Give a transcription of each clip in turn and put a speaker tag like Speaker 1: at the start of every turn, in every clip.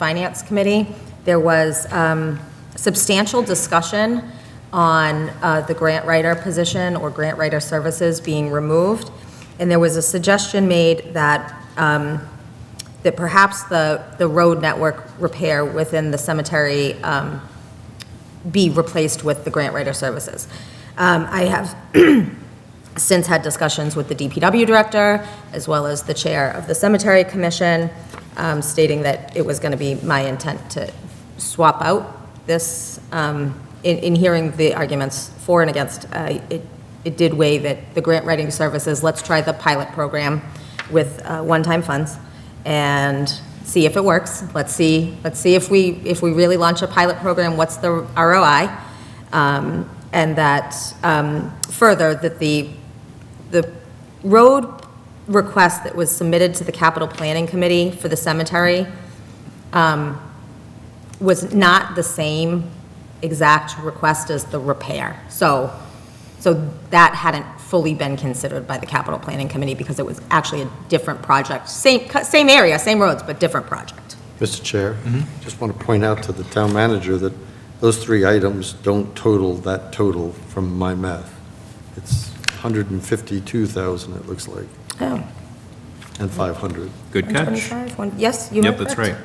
Speaker 1: Finance Committee, there was um, substantial discussion on uh, the grant writer position or grant writer services being removed, and there was a suggestion made that, um, that perhaps the, the road network repair within the cemetery um, be replaced with the grant writer services. Um, I have since had discussions with the DPW director, as well as the chair of the cemetery commission, um, stating that it was going to be my intent to swap out this, um, in, in hearing the arguments for and against, uh, it, it did weigh that the grant writing services, let's try the pilot program with uh, one-time funds and see if it works. Let's see, let's see if we, if we really launch a pilot program, what's the ROI? um, and that, um, further, that the, the road request that was submitted to the capital planning committee for the cemetery um, was not the same exact request as the repair. So, so that hadn't fully been considered by the capital planning committee because it was actually a different project, same, same area, same roads, but different project.
Speaker 2: Mr. Chair, just want to point out to the town manager that those three items don't total that total from my math. It's 152,000, it looks like,
Speaker 1: Oh,
Speaker 2: and 500.
Speaker 3: Good catch.
Speaker 1: 125, one- yes, you
Speaker 3: Yep,
Speaker 1: were
Speaker 3: that's right.
Speaker 1: correct.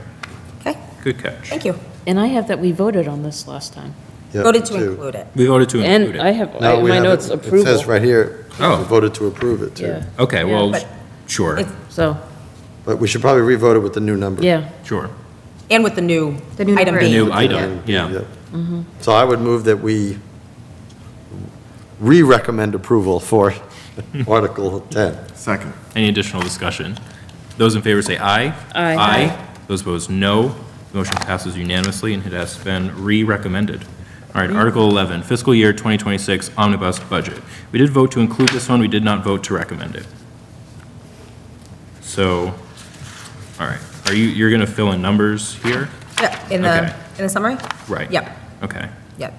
Speaker 1: Okay,
Speaker 3: Good catch.
Speaker 1: thank you.
Speaker 4: And I have that we voted on this last time.
Speaker 2: Yep,
Speaker 1: Voted to
Speaker 2: two.
Speaker 1: include it.
Speaker 3: We voted to include
Speaker 4: And I
Speaker 3: it.
Speaker 4: have,
Speaker 2: No,
Speaker 4: I-
Speaker 2: we
Speaker 4: my
Speaker 2: have it-
Speaker 4: notes
Speaker 2: It says
Speaker 4: approval.
Speaker 2: right here,
Speaker 3: Oh.
Speaker 2: we voted to approve it, too.
Speaker 4: Yeah,
Speaker 3: Okay, well,
Speaker 1: But-
Speaker 3: sure,
Speaker 1: It's-
Speaker 4: so,
Speaker 2: But we should probably revote it with the new number.
Speaker 4: yeah,
Speaker 3: sure.
Speaker 1: And with the new
Speaker 5: The new
Speaker 1: item
Speaker 5: number.
Speaker 3: The
Speaker 1: B.
Speaker 3: new item, yeah.
Speaker 2: Yep.
Speaker 1: Mm-hmm.
Speaker 2: So I would move that we re-recommend approval for Article 10.
Speaker 6: Second.
Speaker 3: Any additional discussion? Those in favor say aye.
Speaker 4: Aye.
Speaker 3: Aye. Those opposed, no. Motion passes unanimously and it has been re-recommended. All right, Article 11, fiscal year 2026 omnibus budget. We did vote to include this one, we did not vote to recommend it. So, all right, are you, you're going to fill in numbers here?
Speaker 1: Yeah, in
Speaker 3: Okay.
Speaker 1: the, in the summary?
Speaker 3: Right.
Speaker 1: Yep,
Speaker 3: Okay.
Speaker 1: yep.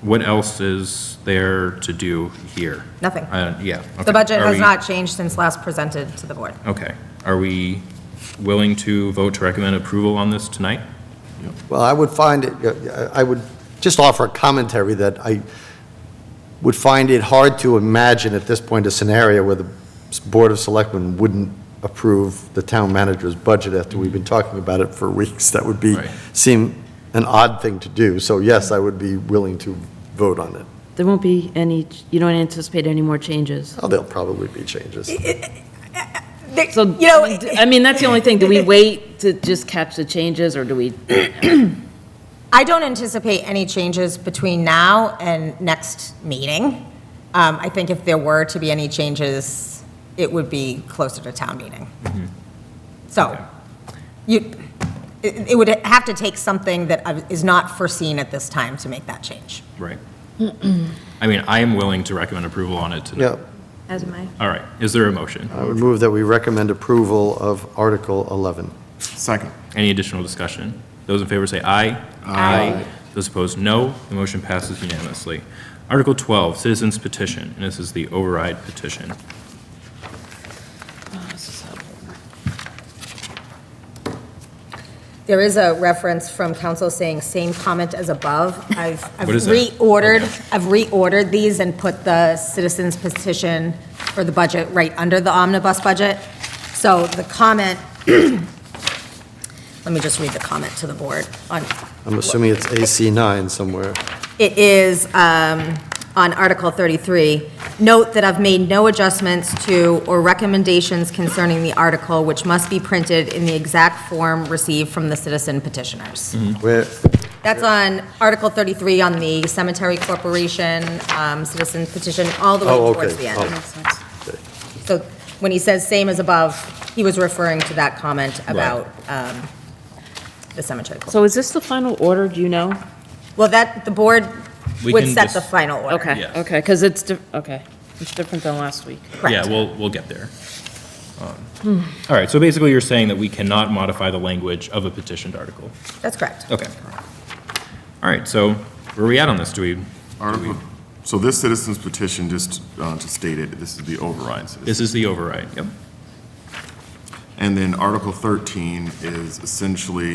Speaker 3: What else is there to do here?
Speaker 1: Nothing.
Speaker 3: Uh, Yeah. okay.
Speaker 1: The budget
Speaker 3: Are
Speaker 1: has
Speaker 3: we-
Speaker 1: not changed since last presented to the board.
Speaker 3: Okay. Are we willing to vote to recommend approval on this tonight?
Speaker 2: Well, I would find it, uh, I would just offer a commentary that I would find it hard to imagine at this point a scenario where the Board of Selectmen wouldn't approve the town manager's budget after we've been talking about it for weeks. That would be,
Speaker 3: Right.
Speaker 2: seem an odd thing to do. So yes, I would be willing to vote on it.
Speaker 4: there won't be any, you don't anticipate any more changes.
Speaker 2: Oh, there'll probably be changes.
Speaker 4: So,
Speaker 1: You know,
Speaker 4: I mean, that's the only thing, do we wait to just catch the changes, or do we?
Speaker 1: I don't anticipate any changes between now and next meeting. Um, I think if there were to be any changes, it would be closer to town meeting.
Speaker 3: Mm-hmm.
Speaker 1: So, you, it, it would have to take something that uh, is not foreseen at this time to make that change.
Speaker 3: Right. I mean, I am willing to recommend approval on it tonight.
Speaker 2: Yeah,
Speaker 5: As am I.
Speaker 3: All right. Is there a motion?
Speaker 2: I would move that we recommend approval of Article 11.
Speaker 6: Second.
Speaker 3: Any additional discussion? Those in favor say aye. Aye. Those opposed, no. The motion passes unanimously. Article 12, citizens petition, and this is the override petition.
Speaker 1: There is a reference from council saying same comment as above. I've I've
Speaker 3: What is that?
Speaker 1: reordered,
Speaker 3: Okay.
Speaker 1: I've reordered these and put the citizens petition for the budget right under the omnibus budget. So the comment, let me just read the comment to the board on,
Speaker 2: I'm assuming it's AC 9 somewhere.
Speaker 1: it is um, on Article 33. Note that I've made no adjustments to or recommendations concerning the article, which must be printed in the exact form received from the citizen petitioners.
Speaker 2: Where,
Speaker 1: That's on Article 33 on the Cemetery Corporation um, Citizen Petition, all the way
Speaker 2: Oh,
Speaker 1: towards
Speaker 2: okay.
Speaker 1: the
Speaker 2: Oh.
Speaker 1: end. So when he says same as above, he was referring to that comment about um, the cemetery. corp-
Speaker 4: So is this the final order, do you know?
Speaker 1: Well, that, the board
Speaker 3: We
Speaker 1: would
Speaker 3: can
Speaker 1: set
Speaker 3: just-
Speaker 1: the final order.
Speaker 4: Okay,
Speaker 3: Yes.
Speaker 4: okay, because it's, di- okay, it's different than last week.
Speaker 3: Yeah, we'll, we'll get there. Um, All right, so basically you're saying that we cannot modify the language of a petitioned article.
Speaker 1: That's correct.
Speaker 3: Okay. All right, so where are we at on this? Do we,
Speaker 6: Article, so this citizen's petition, just uh, to state it, this is the override citizen.
Speaker 3: this is the override, yep.
Speaker 6: And then Article 13 is essentially